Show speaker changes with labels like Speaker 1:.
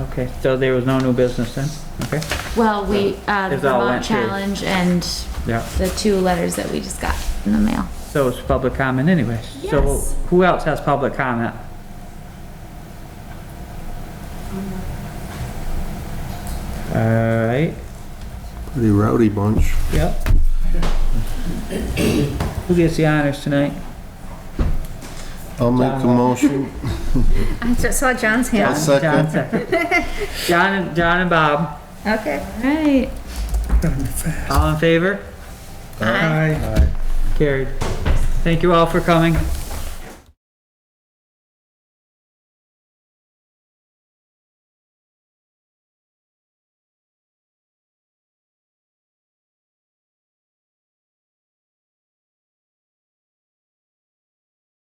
Speaker 1: Okay, so there was no new business then? Okay,
Speaker 2: Well, we, uh, the
Speaker 1: It's all
Speaker 2: Vermont
Speaker 1: went through.
Speaker 2: Challenge and
Speaker 1: yeah.
Speaker 2: the two letters that we just got in the mail.
Speaker 1: So it's public comment anyways. So
Speaker 2: Yes.
Speaker 1: who else has public comment? Alright,
Speaker 3: Pretty rowdy bunch.
Speaker 1: yep. Who gets the honors tonight?
Speaker 3: I'll make a motion.
Speaker 4: I just saw John's
Speaker 1: John.
Speaker 4: hand.
Speaker 3: second.
Speaker 1: John second. John, and- John and Bob,
Speaker 4: Okay.
Speaker 2: Right.
Speaker 1: all in favor?
Speaker 4: Aye.
Speaker 1: Carried. Thank you all for coming.